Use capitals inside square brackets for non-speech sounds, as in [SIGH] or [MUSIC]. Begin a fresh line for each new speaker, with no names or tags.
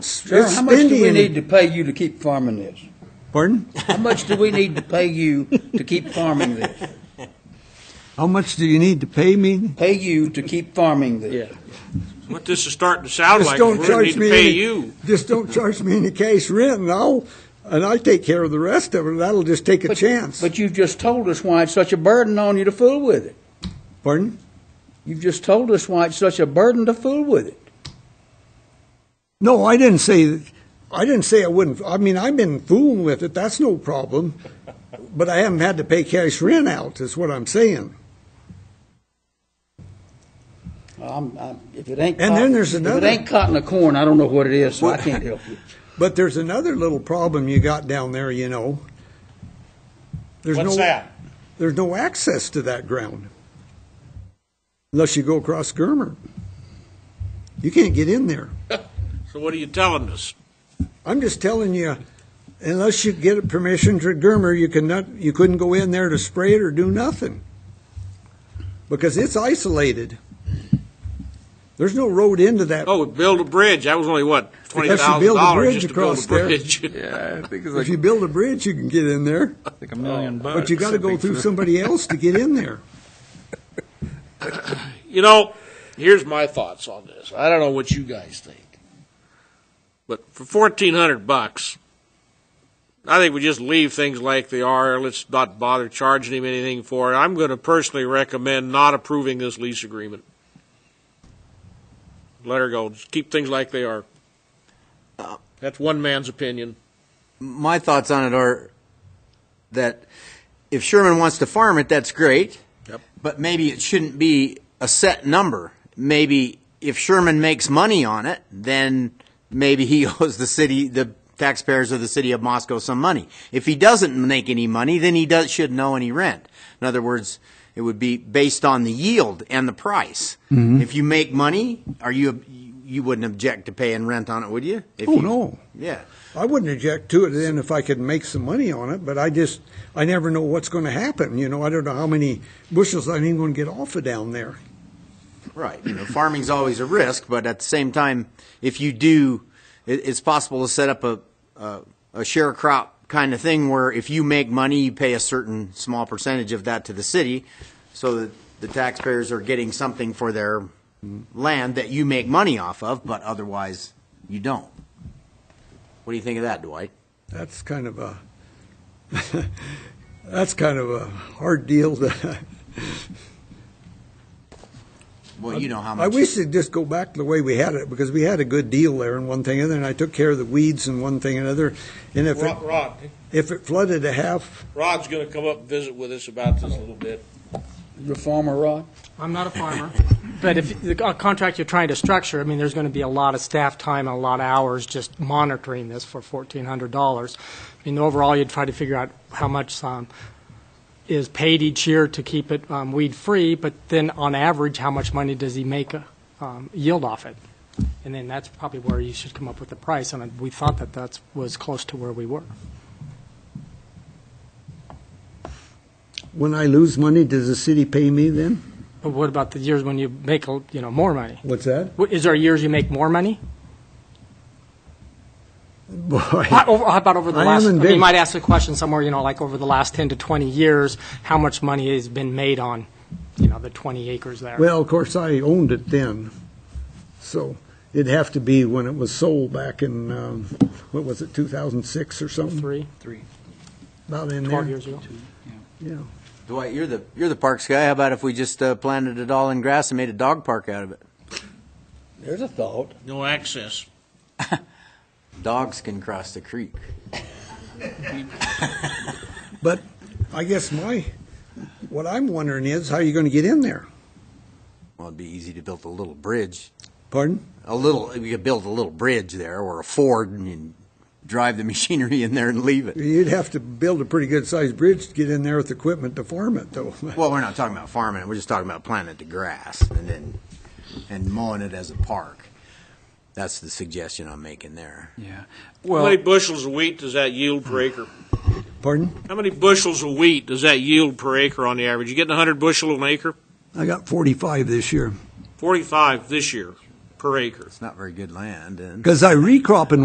Sir, how much do we
spending-
need to pay you to keep farming this?
Pardon?
How much do we need to pay you to keep farming this?
[LAUGHS] How much do you need to pay me?
Pay you to keep farming this?
What this is starting to sound
Just
like, we're
don't
gonna need
charge
to
me
pay
any-
you.
Just
[LAUGHS]
don't charge me any cash rent, and I'll, and I'll take care of the rest of it. That'll just take a
But-
chance.
But you've just told us why it's such a burden on you to fool with it.
Pardon?
You've just told us why it's such a burden to fool with it.
No, I didn't say, I didn't say I wouldn't. I mean, I've been fooling with it. That's no problem. But I haven't had to pay cash rent out, is what I'm saying.
I'm, I'm, if it ain't
And
cotton,
then there's
If
another-
it ain't cotton or corn, I don't know what it is, so I can't help you.
But there's another little problem you got down there, you know. There's
What's
no,
that?
There's no access to that ground unless you go across Germer. You can't get in there.
So what are you telling us?
I'm just telling you, unless you get permission to Germer, you cannot, you couldn't go in there to spray it or do nothing because it's isolated. There's no road into that.
Oh, build a bridge, that was only what, twenty
Because you
thousand
build a
dollars
bridge
just to build a
across there.
bridge?
[LAUGHS] Yeah, I think it's
if
like,
you build a bridge, you can get in there,
like a million
Oh.
bucks.
but you got to
I
go
think,
through
for-
somebody else to get in there.
You know, here's my thoughts on this. I don't know what you guys think. But for fourteen hundred bucks, I think we just leave things like they are. Let's not bother charging him anything for it. I'm gonna personally recommend not approving this lease agreement. Let her go. Just keep things like they are. That's one man's opinion.
my thoughts on it are that if Sherman wants to farm it, that's great.
Yep.
But maybe it shouldn't be a set number. Maybe if Sherman makes money on it, then maybe he [LAUGHS] owes the city, the taxpayers of the city of Moscow some money. If he doesn't make any money, then he does, shouldn't owe any rent. In other words, it would be based on the yield and the price.
Mm-hmm.
If you make money, are you, you wouldn't object to paying rent on it, would you? If
Oh,
you-
no.
Yeah.
I wouldn't object to it then if I could make some money on it, but I just, I never know what's going to happen. You know, I don't know how many bushels I'm even going to get off of down there.
Right. You know, farming's always a risk, but at the same time, if you do, it, it's possible to set up a, a, a share crop kind of thing where if you make money, you pay a certain small percentage of that to the city so that the taxpayers are getting something for their land that you make money off of, but otherwise you don't. What do you think of that, Dwight?
That's kind of a, [LAUGHS] that's kind of a hard deal. To,
Well, you know how much.
I wish they'd just go back to the way we had it because we had a good deal there and one thing and then I took care of the weeds and one thing and another. And if it,
Rod, Rod,
if it flooded a half,
Rod's going to come up and visit with us about this a little bit.
You're a farmer, Rod?
I'm not a farmer, [LAUGHS] but if the co- contract you're trying to structure, I mean, there's going to be a lot of staff time and a lot of hours just monitoring this for $1,400. I mean, overall, you'd try to figure out how much um, is paid each year to keep it um, weed-free, but then on average, how much money does he make uh, um, yield off it? And then that's probably where you should come up with the price, and we thought that that was close to where we were.
when I lose money, does the city pay me then?
But what about the years when you make, a- you know, more money?
What's that? [LAUGHS]
Wh- Is there years you make more money?
Boy.
How, over, how about over the
I
last?
am
I mean, you
indig-
might ask the question somewhere, you know, like over the last ten to twenty years, how much money has been made on, you know, the twenty acres there?
Well, of course, I owned it then, so it'd have to be when it was sold back in, um, what was it, 2006 or something?
Three,
About in
twelve
there,
years ago.
yeah.
Dwight, you're the, you're the parks guy. How about if we just uh, planted it all in grass and made a dog park out of it?
There's a thought.
No access.
Dogs can cross the creek.
But I guess my, what I'm wondering is, how you going to get in there?
Well, it'd be easy to build a little bridge.
Pardon?
A little, we could build a little bridge there or a ford and you drive the [LAUGHS] machinery in there and leave it.
You'd have to build a pretty good-sized bridge to get in there with equipment to farm it, though.
Well, we're not talking about farming. it. We're just talking about planting the grass and then and mowing it as a park. That's the suggestion I'm making there.
Yeah.
How
Well,
many bushels of wheat does that yield per acre?
Pardon?
How many bushels of wheat does that yield per acre on the average? You getting 100 bushel an acre?
I got 45 this year.
45 this year.
per acre.
It's not very good land, and.
Because I recrop in